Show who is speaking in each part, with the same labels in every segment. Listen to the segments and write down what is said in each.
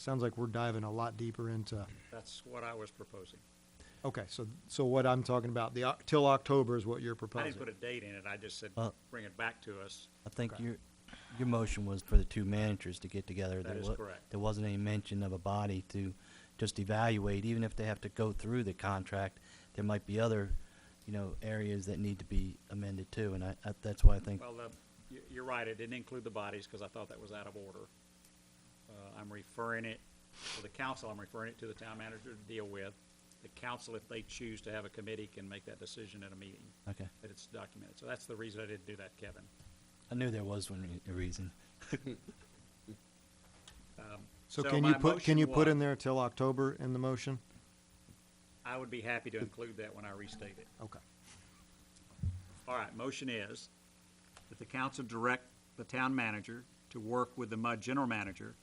Speaker 1: Sounds like we're diving a lot deeper into,
Speaker 2: That's what I was proposing.
Speaker 1: okay, so, so what I'm talking about, the, Oc- till October is what you're
Speaker 2: I
Speaker 1: proposing.
Speaker 2: didn't put a date in it, I just said,
Speaker 3: Uh,
Speaker 2: bring it back to us.
Speaker 3: I think
Speaker 1: Okay.
Speaker 3: your, your motion was for the two managers to get together.
Speaker 2: That
Speaker 3: There
Speaker 2: is
Speaker 3: wa-
Speaker 2: correct.
Speaker 3: There wasn't any mention of a body to just evaluate, even if they have to go through the contract, there might be other, you know, areas that need to be amended too, and I, I- that's why I think,
Speaker 2: Well, the- you- you're right, it didn't include the bodies because I thought that was out of order. Uh, I'm referring it, to the council, I'm referring it to the town manager to deal with. The council, if they choose to have a committee, can make that decision at a meeting,
Speaker 3: okay.
Speaker 2: that it's documented. So that's the reason I didn't do that, Kevin.
Speaker 3: I knew there was one re- a reason.
Speaker 1: So
Speaker 2: So
Speaker 1: can you
Speaker 2: my
Speaker 1: put, can
Speaker 2: motion
Speaker 1: you put in
Speaker 2: was-
Speaker 1: there till October in the motion?
Speaker 2: I would be happy to include that when I restate it.
Speaker 1: Okay.
Speaker 2: All right, motion is that the council direct the town manager to work with the MUD general manager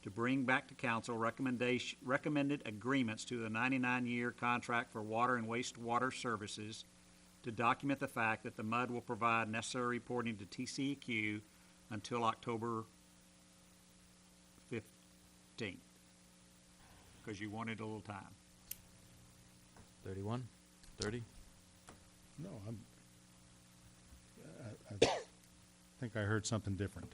Speaker 2: to bring back to council recommendation, recommended agreements to the ninety-nine-year contract for water and wastewater services to document the fact that the MUD will provide necessary reporting to TCEQ until October fifteenth. Because you wanted a little time.
Speaker 4: Thirty-one? Thirty?
Speaker 5: No, Oh, I'm, I, I think I heard something different.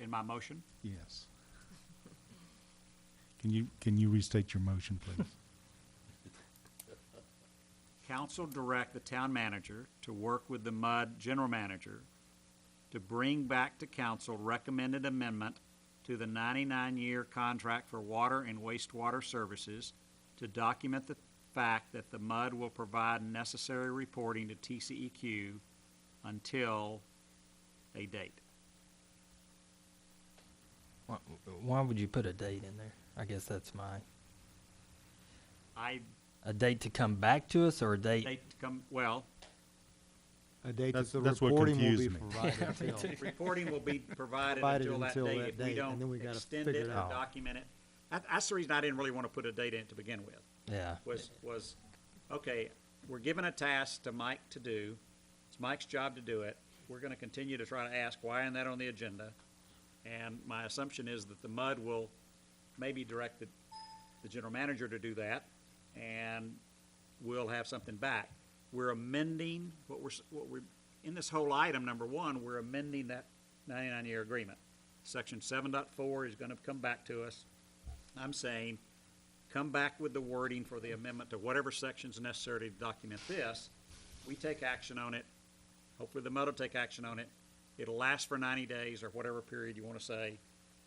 Speaker 2: In my motion?
Speaker 5: Yes. Can you, can you restate your motion, please?
Speaker 2: Council direct the town manager to work with the MUD general manager to bring back to council recommended amendment to the 99-year contract for water and wastewater services to document the fact that the MUD will provide necessary reporting to TCEQ until a date.
Speaker 6: Why, why would you put a date in there? I guess that's my
Speaker 2: I,
Speaker 6: a date to come back to us or a date.
Speaker 2: date to come, well,
Speaker 1: A date that
Speaker 5: That's-
Speaker 1: the
Speaker 5: that's what
Speaker 1: reporting will be
Speaker 5: confused me.
Speaker 1: provided till.
Speaker 2: reporting will be provided
Speaker 1: Provided
Speaker 2: until that
Speaker 1: until
Speaker 2: date.
Speaker 1: that
Speaker 2: If we
Speaker 1: date, and then we
Speaker 2: don't
Speaker 1: gotta
Speaker 2: extend
Speaker 1: figure
Speaker 2: it
Speaker 1: it
Speaker 2: or
Speaker 1: out.
Speaker 2: document it. That- That's the reason I didn't really want to put a date in it to begin with.
Speaker 6: Yeah.
Speaker 2: was, was, okay, we're given a task to Mike to do. It's Mike's job to do it. We're gonna continue to try to ask, why isn't that on the agenda? And my assumption is that the MUD will maybe direct the, the general manager to do that, and we'll have something back. We're amending, what we're, s- what we're, in this whole item, number one, we're amending that ninety-nine-year agreement. Section seven dot four is gonna come back to us. I'm saying, come back with the wording for the amendment to whatever section's necessary to document this. We take action on it. Hopefully, the MUD will take action on it. It'll last for ninety days or whatever period you want to say,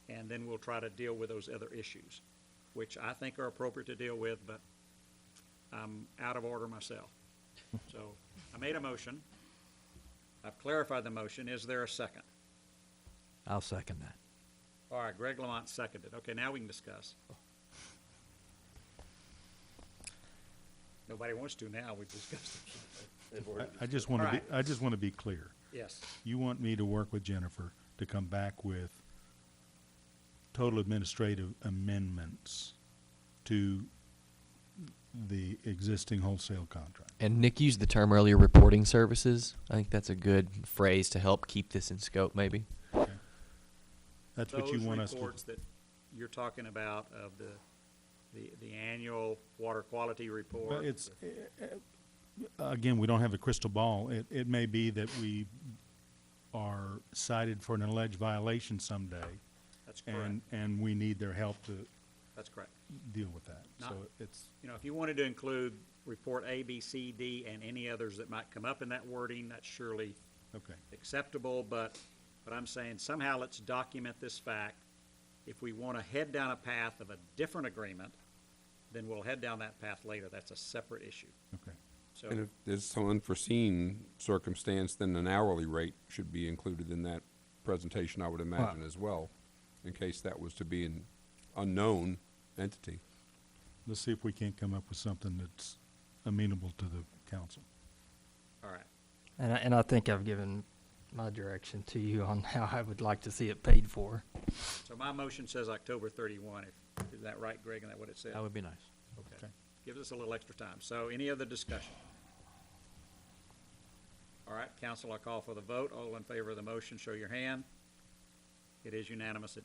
Speaker 2: and then we'll try to deal with those other issues, which I think are appropriate to deal with, but I'm out of order myself. So I made a motion. I've clarified the motion. Is there a second?
Speaker 4: I'll second that.
Speaker 2: All right, Greg Lamont seconded. Okay, now we can discuss. Nobody wants to now, we've discussed it.
Speaker 5: I, I just want to be,
Speaker 2: Alright.
Speaker 5: I just want to be clear.
Speaker 2: Yes,
Speaker 5: You want me to work with Jennifer to come back with total administrative amendments to the existing wholesale contract?
Speaker 4: And Nick used the term earlier, reporting services. I think that's a good phrase to help keep this in scope, maybe.
Speaker 5: Okay. That's what
Speaker 2: those
Speaker 5: you want us to do?
Speaker 2: reports that you're talking about of the, the, the annual water quality report.
Speaker 5: Well, it's, uh, again, we don't have a crystal ball. It, it may be that we are cited for an alleged violation someday,
Speaker 2: That's correct,
Speaker 5: and, and we need their help to
Speaker 2: that's correct.
Speaker 5: deal with that. So
Speaker 2: Not-
Speaker 5: it's,
Speaker 2: You know, if you wanted to include report A, B, C, D, and any others that might come up in that wording, that's surely
Speaker 5: okay.
Speaker 2: acceptable, but, but I'm saying somehow let's document this fact. If we want to head down a path of a different agreement, then we'll head down that path later. That's a separate issue.
Speaker 5: Okay.
Speaker 2: So,
Speaker 7: And if there's some unforeseen circumstance, then an hourly rate should be included in that presentation, I would imagine, as well, in case that was to be an unknown entity.
Speaker 5: Let's see if we can't come up with something that's amenable to the council.
Speaker 2: all right.
Speaker 6: And I, and I think I've given my direction to you on how I would like to see it paid for.
Speaker 2: So my motion says October thirty-one. If, is that right, Greg? Is that what it said?
Speaker 4: That would be nice.
Speaker 2: Okay.
Speaker 5: Okay.
Speaker 2: Gives us a little extra time. So any other discussion? All right, council, I call for the vote. All in favor of the motion, show your hand. It is unanimous. It